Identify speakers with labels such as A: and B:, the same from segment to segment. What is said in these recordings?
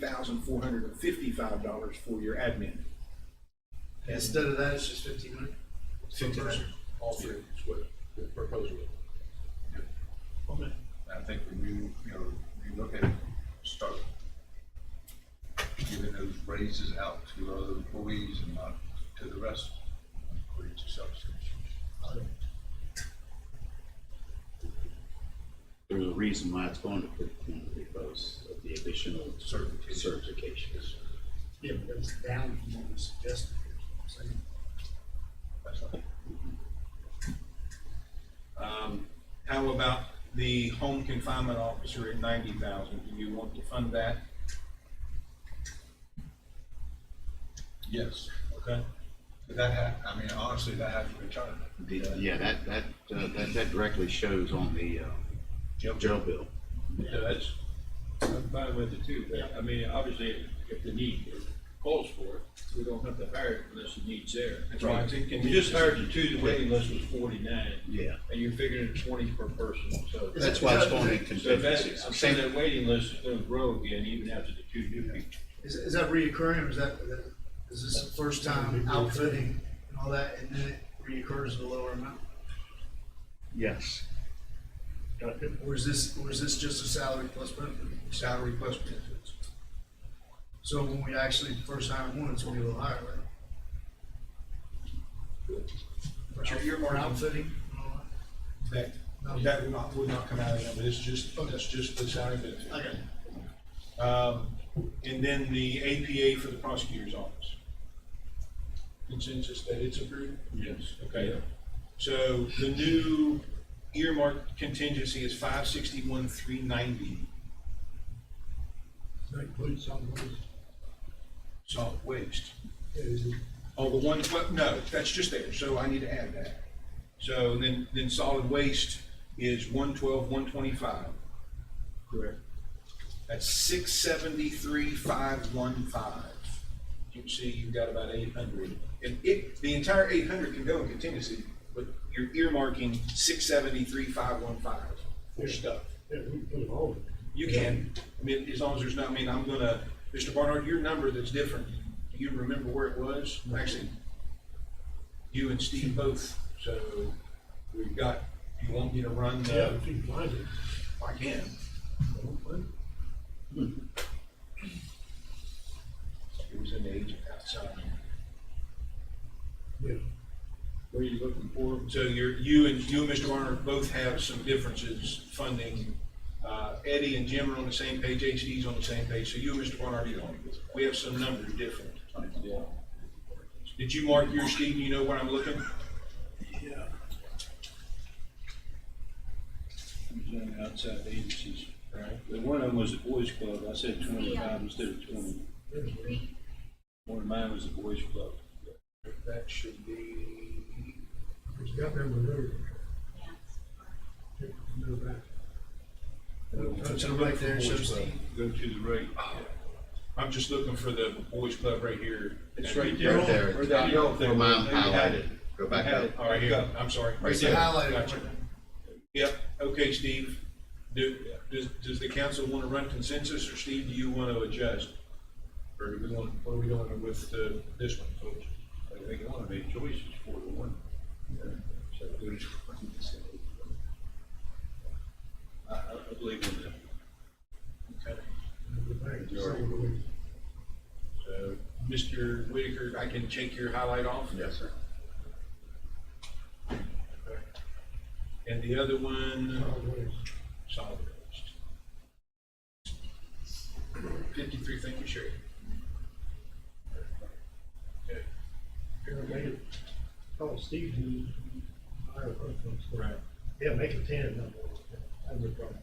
A: thousand four hundred and fifty-five dollars for your admin.
B: Instead of that, it's just fifteen hundred?
A: Fifteen hundred.
B: All three.
A: That's what the proposal is.
B: Okay.
C: I think when you, you know, you look at, start giving those raises out to other employees and not to the rest, according to substation.
D: There's a reason why it's going to fifteen because of the additional
C: Certification.
D: certifications.
B: Yeah, but it's down from what was suggested. So,
C: That's all.
A: Um, how about the home confinement officer at ninety thousand? Do you want to fund that?
C: Yes,
A: Okay.
C: but that had, I mean, honestly, that had to return.
D: The, yeah, that, that, uh, that, that directly shows on the, uh, jail bill.
E: Yeah, that's, I'm fine with it too, but I mean, obviously, if the need calls for it, we don't have to hire it unless the need's there.
A: That's right.
E: We just hired you two today unless it was forty-nine.
D: Yeah.
E: And you're figuring twenty per person, so.
D: That's why it's going in
E: So that, I'm
D: contingencies.
E: saying
D: Same,
E: that waiting list is gonna grow again even after the two new people.
B: Is, is that reoccurring or is that, that- is this the first time outfitting and all that and then it reoccurs at a lower amount?
D: yes.
B: Or is this, or is this just a salary plus benefit?
A: Salary plus benefits.
B: So when we actually first hire one, it's gonna be a little higher, right?
A: But you're- you're-
B: Or outfitting and all
A: That, that would not, would not come out of that, but it's just, that's just the salary benefit.
B: that? Okay.
A: Um, and then the APA for the prosecutor's office. Consensus that it's approved?
E: Yes.
A: Okay. So the new earmark contingency is five sixty-one, three ninety.
F: That includes solid waste.
A: Solid waste.
F: Is it
A: Oh, the one, well, no, that's just there, so I need to add that. So then, then solid waste is one twelve, one twenty-five. Correct. That's six seventy-three, five one five. You can see you've got about eight hundred. And it, the entire eight hundred can go in contingency, but you're earmarking six seventy-three, five one five for stuff.
F: Yeah, we can put it all.
A: You can, I mean, as long as there's not, I mean, I'm gonna, Mr. Barnard, your number that's different, do you remember where it was? Actually, you and Steve both, so we've got, you want me to run
F: Yeah,
A: the,
F: if you can find it.
A: I can. It was in the agent outside.
F: Yeah.
E: What are you looking for?
A: So you're, you and, you and Mr. Barnard both have some differences funding. Uh, Eddie and Jim are on the same page, HD's on the same page, so you and Mr. Barnard, you don't. We have some numbers different.
E: Yeah.
A: Did you mark yours, Steve? You know where I'm looking?
E: Doing outside agencies, right? The one of them was the boys club. I said twenty-five instead of twenty. One of mine was the boys club.
A: That should be,
F: It's got that one there. Yeah, no back.
B: Put it right there, show Steve.
E: Go to the right.
A: I'm just looking for the boys club right here.
E: It's right there.
D: Right there.
E: Where that yellow thing
D: Where
E: was,
D: mine
E: they had it.
D: highlighted. Go back
E: Had
D: up.
E: it.
A: All right, here, I'm sorry. Right
B: It's the
A: there.
B: highlighted
A: Gotcha.
B: one.
A: Yep, okay, Steve. Do, does, does the council want to run consensus, or Steve, do you want to adjust? Or do we want, what are we doing with, uh, this one, folks?
E: I think I want to make choices for the one. So go to- I, I I believe in that.
A: Okay.
F: No back, solid waste.
A: So, Mr. Whitaker, I can take your highlight off?
D: Yes, sir.
A: And the other one?
F: Solid waste.
A: solid waste. Fifty-three, thank you, Sherry. Okay,
F: Yeah, make it, oh, Steve, you, hire a person.
A: Right.
F: Yeah, make it ten, no more. That's a problem.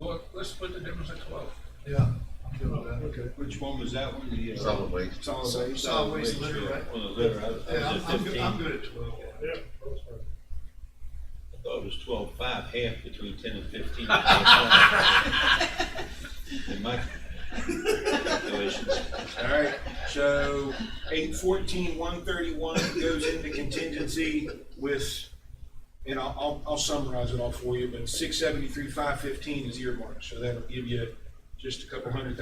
C: Well, let's split the difference at twelve.
B: Yeah, I'm good with that.
F: Okay.
E: Which one was that one? The, uh,
D: Solid waste.
A: Solid waste.
B: Solid waste litter, right?
E: On the litter, I, I
B: Yeah,
E: was
B: I'm,
E: at
B: I'm good,
E: fifteen.
B: I'm
E: I
B: good at twelve.
F: Yeah, that's fine.
E: thought it was twelve-five, half between ten and fifteen. In my calculations.
A: All right, so eight fourteen, one thirty-one goes into contingency with, and I'll, I'll, I'll summarize it all for you, but six seventy-three, five fifteen is earmarked, so that'll give you just a couple hundred